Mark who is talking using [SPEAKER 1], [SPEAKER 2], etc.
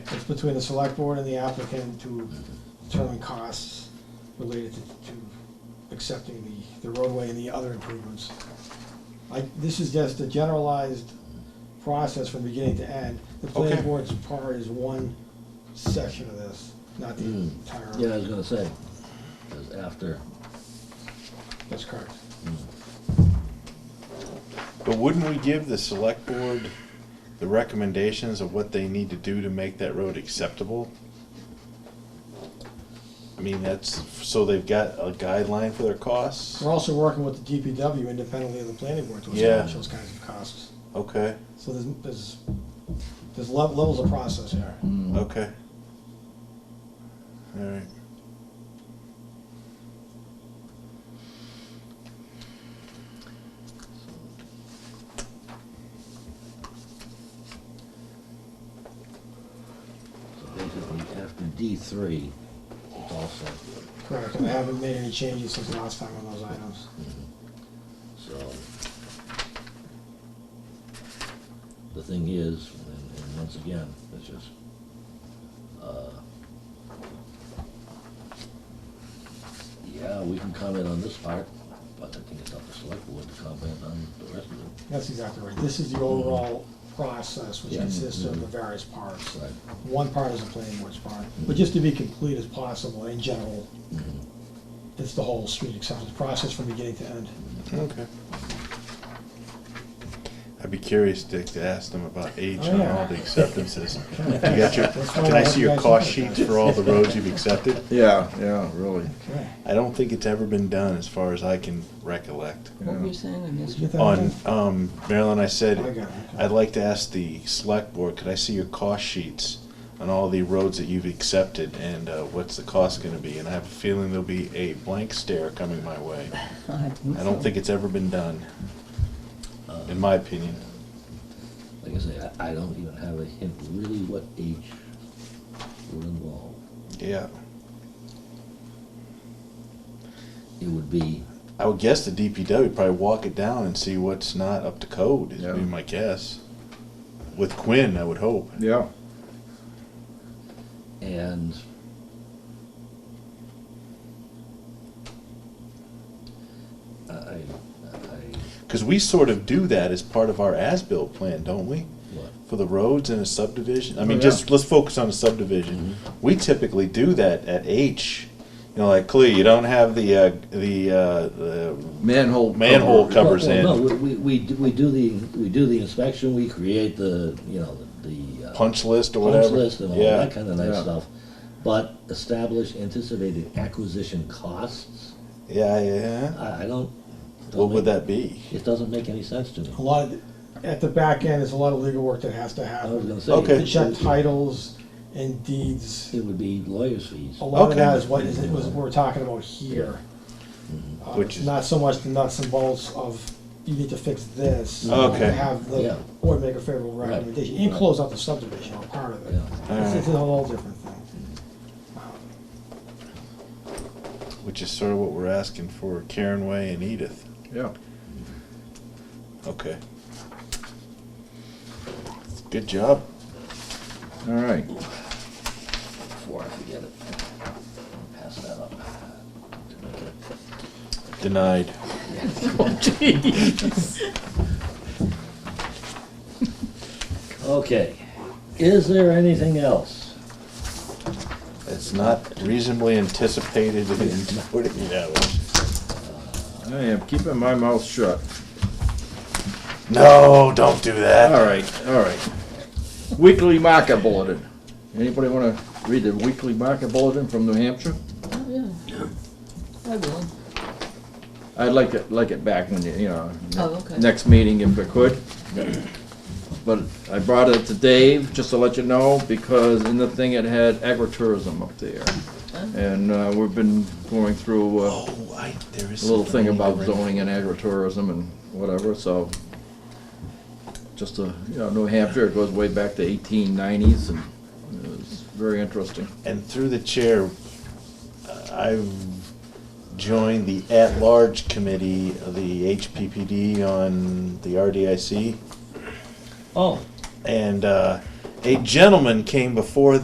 [SPEAKER 1] It's between the select board and the applicant to determine costs related to, to accepting the, the roadway and the other improvements. I, this is just a generalized process from beginning to end. The planning
[SPEAKER 2] Okay.
[SPEAKER 1] board's part is one section of this, not the
[SPEAKER 3] Hmm.
[SPEAKER 1] entire.
[SPEAKER 3] Yeah, I was gonna say, because after,
[SPEAKER 1] That's correct.
[SPEAKER 2] But wouldn't we give the select board the recommendations of what they need to do to make that road acceptable? I mean, that's, so they've got a guideline for their costs?
[SPEAKER 1] We're also working with the DPW independently of the planning board to
[SPEAKER 2] Yeah.
[SPEAKER 1] establish those kinds of costs.
[SPEAKER 2] Okay,
[SPEAKER 1] So there's, there's, there's lev- levels of process here.
[SPEAKER 3] mm,
[SPEAKER 2] okay. Alright.
[SPEAKER 3] so basically after D three, it's all set.
[SPEAKER 1] Correct, and I haven't made any changes since the last time on those items.
[SPEAKER 3] Mm-hmm. So, the thing is, and, and once again, it's just, uh, yeah, we can comment on this part, but I think it's up to select board to comment on the rest of it.
[SPEAKER 1] That's exactly right. This is the overall process, which
[SPEAKER 3] Yeah.
[SPEAKER 1] consists of the various parts.
[SPEAKER 3] Right.
[SPEAKER 1] One part is the planning board's part, but just to be complete as possible in general, it's the whole street acceptance process from beginning to end.
[SPEAKER 2] Okay. I'd be curious, Dick, to ask them about age
[SPEAKER 1] Oh,
[SPEAKER 2] on
[SPEAKER 1] yeah.
[SPEAKER 2] all the acceptances. You got your,
[SPEAKER 1] Let's find
[SPEAKER 2] can I
[SPEAKER 1] out
[SPEAKER 2] see
[SPEAKER 1] what
[SPEAKER 2] your
[SPEAKER 1] you guys
[SPEAKER 2] cost
[SPEAKER 1] think about
[SPEAKER 2] sheets for all the roads you've accepted?
[SPEAKER 4] Yeah, yeah, really.
[SPEAKER 1] Okay.
[SPEAKER 2] I don't think it's ever been done, as far as I can recollect.
[SPEAKER 5] What were
[SPEAKER 4] Yeah.
[SPEAKER 5] you saying? I missed
[SPEAKER 1] Did you
[SPEAKER 5] it.
[SPEAKER 1] get that?
[SPEAKER 2] On, um, Marilyn, I
[SPEAKER 1] I
[SPEAKER 2] said,
[SPEAKER 1] got it.
[SPEAKER 2] I'd like to ask the select board, could I see your cost sheets on all the roads that you've accepted and uh, what's the cost gonna be? And I have a feeling there'll be a blank stare coming my way. I don't think it's ever been done,
[SPEAKER 3] Uh,
[SPEAKER 2] in my opinion.
[SPEAKER 3] Like I say, I, I don't even have a hint really what age were involved.
[SPEAKER 2] Yeah.
[SPEAKER 3] It would be,
[SPEAKER 2] I would guess the DPW would probably walk it down and see what's not up to code, is
[SPEAKER 4] Yeah.
[SPEAKER 2] be my guess. With Quinn, I would hope.
[SPEAKER 4] Yeah.
[SPEAKER 3] and I, I, I-
[SPEAKER 2] Because we sort of do that as part of our as-built plan, don't we?
[SPEAKER 3] what?
[SPEAKER 2] For the roads in a subdivision? I
[SPEAKER 4] Oh,
[SPEAKER 2] mean,
[SPEAKER 4] yeah.
[SPEAKER 2] just, let's focus on the subdivision.
[SPEAKER 3] Mm-hmm.
[SPEAKER 2] We typically do that at H. You know, like Clee, you don't have the, uh, the, uh, the,
[SPEAKER 4] Manhole.
[SPEAKER 2] Manhole
[SPEAKER 4] cover.
[SPEAKER 2] co- covers
[SPEAKER 3] Well, well,
[SPEAKER 2] in.
[SPEAKER 3] No, we, we, we do- we do the, we do the inspection, we create the, you know, the- the. uh,
[SPEAKER 2] punch list or
[SPEAKER 3] punch
[SPEAKER 2] whatever.
[SPEAKER 3] list and all
[SPEAKER 2] yeah.
[SPEAKER 3] that kind of nice
[SPEAKER 4] Yeah.
[SPEAKER 3] stuff. But establish anticipated acquisition costs,
[SPEAKER 2] Yeah, yeah.
[SPEAKER 3] I, I don't. don't
[SPEAKER 2] What would
[SPEAKER 3] make-
[SPEAKER 2] that be?
[SPEAKER 3] It doesn't make any sense to me.
[SPEAKER 1] A lot of, at the back end, there's a lot of legal work that has to
[SPEAKER 3] I was
[SPEAKER 1] happen.
[SPEAKER 3] gonna say.
[SPEAKER 2] Okay.
[SPEAKER 1] To
[SPEAKER 3] it-
[SPEAKER 1] Check
[SPEAKER 3] it-
[SPEAKER 1] titles and deeds.
[SPEAKER 3] It would be lawyer's fees.
[SPEAKER 1] A lot of
[SPEAKER 2] Okay.
[SPEAKER 1] that is what is, it was, we're talking about here. Uh,
[SPEAKER 2] Mm-hmm. Which is-
[SPEAKER 1] Not so much the nuts and bolts of, you need to fix this. you
[SPEAKER 2] Okay.
[SPEAKER 1] know, Have
[SPEAKER 3] Yeah.
[SPEAKER 1] the board make a favorable
[SPEAKER 3] Right.
[SPEAKER 1] recommendation, and
[SPEAKER 3] Right.
[SPEAKER 1] close out the subdivision, or part of it.
[SPEAKER 3] Yeah.
[SPEAKER 1] It's, it's a whole different thing.
[SPEAKER 2] Which is sort of what we're asking for Karen Way and Edith.
[SPEAKER 4] Yeah.
[SPEAKER 2] Okay. Good job.
[SPEAKER 4] All right.
[SPEAKER 3] Before I forget it. Pass that up. To make it-
[SPEAKER 2] Denied.
[SPEAKER 3] Okay, is there anything else?
[SPEAKER 2] It's not reasonably anticipated in 48 hours.
[SPEAKER 4] I am keeping my mouth shut.
[SPEAKER 2] No, don't do that.
[SPEAKER 4] All right, all right. Weekly market bulletin. Anybody want to read the weekly market bulletin from New Hampshire?
[SPEAKER 5] Oh, yeah. I will.
[SPEAKER 4] I'd like it, like it back when, you you know.
[SPEAKER 5] Oh, okay.
[SPEAKER 4] Next meeting if I could. But I brought it to Dave, just to let you know, because in the thing it had agritourism up there. And uh, we've been going through uh,
[SPEAKER 2] Oh, I, there is
[SPEAKER 4] a little
[SPEAKER 2] something
[SPEAKER 4] thing
[SPEAKER 2] I need to
[SPEAKER 4] about
[SPEAKER 2] bring-
[SPEAKER 4] zoning and agritourism and whatever, so. Just a, you know, New Hampshire, it goes way back to eighteen nineties and it was very interesting.
[SPEAKER 2] And through the chair, uh, I've joined the at-large committee of the HPPD on the RDIC.
[SPEAKER 3] Oh,
[SPEAKER 2] And uh, a gentleman came before